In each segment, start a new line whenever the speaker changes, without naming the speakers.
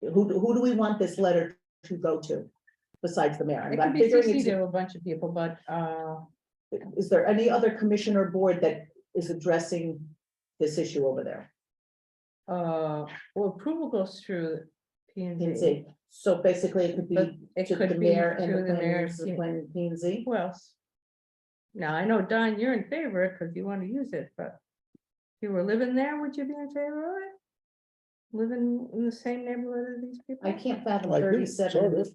who, who do we want this letter to go to besides the mayor?
It
I'm
could be
figuring
CC
it's-
to a bunch of people, but, uh,
Is there any other commissioner board that is addressing this issue over there?
uh, well, approval goes through P and
P&Z?
Z.
So basically, it could
But
be
it
to the
could be
mayor and
through
the
the mayor's.
planners, the planning P and Z.
Who else? Now, I know, Don, you're in favor because you want to use it, but if you were living there, would you be in favor of it? Living in the same neighborhood as these people?
I can't fathom
Like this, sort
thirty-seven.
of.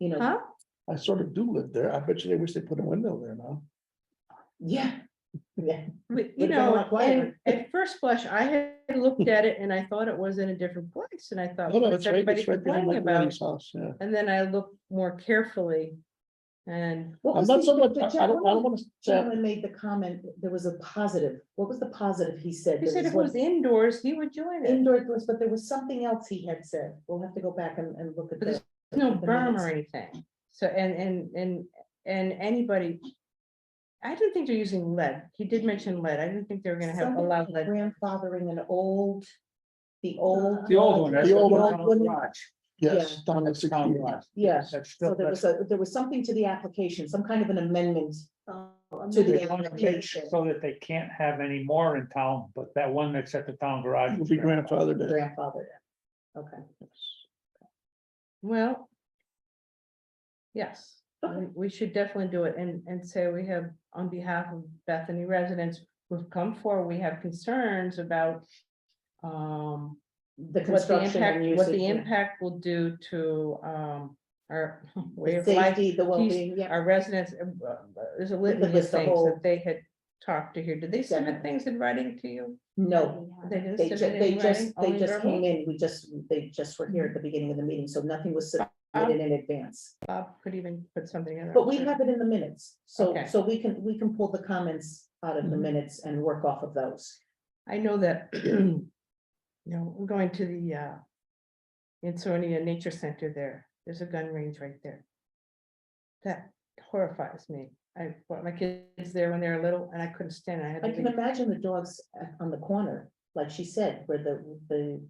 You know,
Huh?
I sort of do live there. I bet you they wish they put a window there now.
yeah, yeah,
But, you
Would've been a
know,
lot quieter.
and at first blush, I had looked at it and I thought it was in a different place and I thought,
No, no,
what's
it's right,
everybody
it's right behind
complaining
my
about?
granny's house, yeah.
And then I looked more carefully and
What
I'm
was
not
the-
so much,
the
I I don't, I don't
gentleman-
wanna say,
Gentleman made the comment, there was a positive, what was the positive he said?
he
There
said if it
one-
was indoors, he would join it.
Indoor, it was, but there was something else he had said, we'll have to go back and, and look at
But there's
this.
No berm or anything. So and and and and anybody. I didn't think they're using lead. He did mention lead. I didn't think they were gonna have
Somebody
allowed lead.
Grandfathering an old, the old.
The old one, that's
The
the
old
old
one.
garage.
yes, Don had sixty
Tom
years.
Ross.
Yeah,
That's
so
still,
there
that's,
was a, there was something to the application, some kind of an amendment
Oh,
to
they
the
wanna make
application.
so that they can't have any more in town, but that one that's at the town garage.
Would be grandfathered in.
Grandfather. Okay,
Well. Yes, we- we should definitely do it and and say we have, on behalf of Bethany residents, who've come forward, we have concerns about. Um,
the
what the
construction and
impact, what the
usage.
impact will do to um our way
The
of life.
safety, the well-being, yeah.
our residents, um, uh, there's a litany of
list, the
things
whole-
that they had talked to here. Did they submit
Definitely.
things in writing to you?
No,
They didn't
they ju-
submit
they
any
just,
writing,
they
only
just
verbal?
came in, we just, they just were here at the beginning of the meeting, so nothing was submitted in advance.
Bob could even put something in.
But we have it in the minutes, so,
Okay. Mm-hmm.
so we can, we can pull the comments out of the
Mhm.
minutes and work off of those.
I know that, you know, we're going to the uh Ansonia Nature Center there. There's a gun range right there. That horrifies me. I brought my kids there when they were little and I couldn't stand it. I had
I
to
can
leave.
imagine the dogs a- on the corner, like she said, where the, the,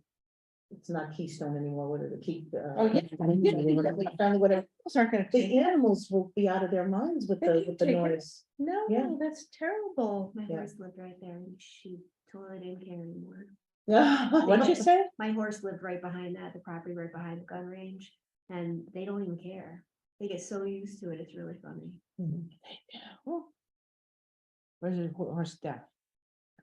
it's not Keystone anymore, what are the uh, key?
Oh, yeah.
Finally, whatever,
Those aren't gonna take,
the animals will be out of their minds with
They
the,
can
with the
take it.
noise. yeah.
no, that's terrible.
My
Yeah.
horse lived right there and she totally didn't care anymore.
What'd you say?
My horse lived right behind that, the property right behind the gun range, and they don't even care. They get so used to it, it's really funny.
Where's your ho- horse death? uh,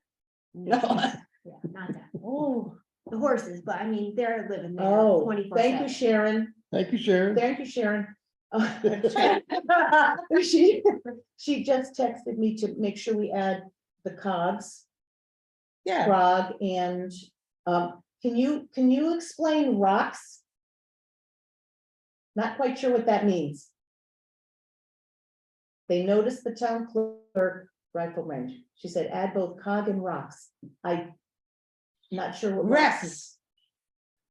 No.
Yeah, not that.
Oh,
The horses, but I mean, they're living there
Oh,
twenty-four
thank you,
seven.
Sharon.
Thank you, Sharon.
Thank you, Sharon. She, she just texted me to make sure we add the cogs,
yeah.
Prague, and, um, can you, can you explain rocks? Not quite sure what that means. They noticed the town clerk rifle range. She said, add both cog and rocks. I, not sure. what rocks is.
Rex.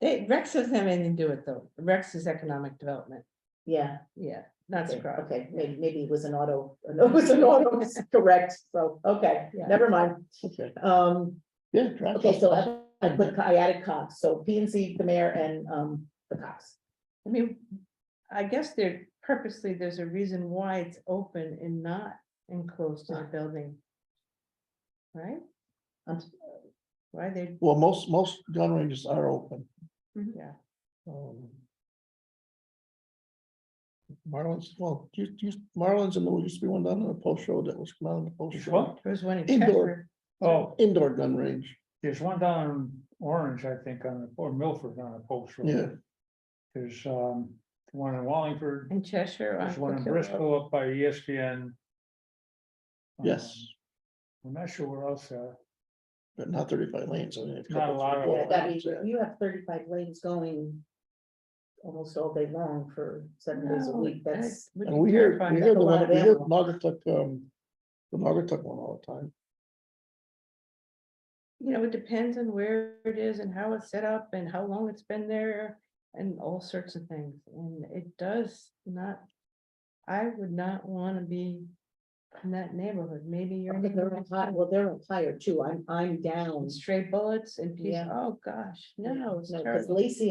They, Rex doesn't have anything to do with though. Rex is economic development.
Yeah.
Yeah, that's
Okay,
correct.
Okay, maybe, maybe it was an auto, it was an auto, correct, so, okay,
Yeah.
never mind.
Okay,
Um,
yeah.
okay,
grandfathered.
so I- I put, I added Cox, so P and Z, the mayor and, um, the Cox.
I mean, I guess there purposely, there's a reason why it's open and not enclosed in a building. Right?
I'm s-
Why they,
Well, most, most gun ranges are open.
Mm-hmm.
yeah,
um, Marlins, well, you, you, Marlins and there used to be one down on the post road that was down on the post
There's
road.
one,
there was one in
Indoor.
Chester.
oh,
Indoor gun range,
there's one down in Orange, I think, on, the- or Milford on the post road.
yeah.
There's, um, one in Wallingford,
In Cheshire. on
there's one in
Brook Hill Road.
Bristol up by E ESPN.
Yes.
Um, I'm not sure where else, uh,
But not thirty-five lanes, I mean. a
Not a
couple,
lot
three,
of
four
Yeah, that means
lanes, yeah.
you have thirty-five lanes going almost all day long for seven days a
No,
week,
that
that's,
would
And
be
we hear,
terrifying.
we
That's
hear
a
the
lot
one,
of
we hear
ammo.
Naugatuck, um, the Naugatuck one all the time.
You know, it depends on where it is and how it's set up and how long it's been there and all sorts of things. And it does not, I would not want to be in that neighborhood. Maybe you're in
they're on fire- well, they're on fire too, I'm, I'm down.
stray bullets and, peop-
Yeah.
oh gosh, no, it's
No,
terrible.
because Lacey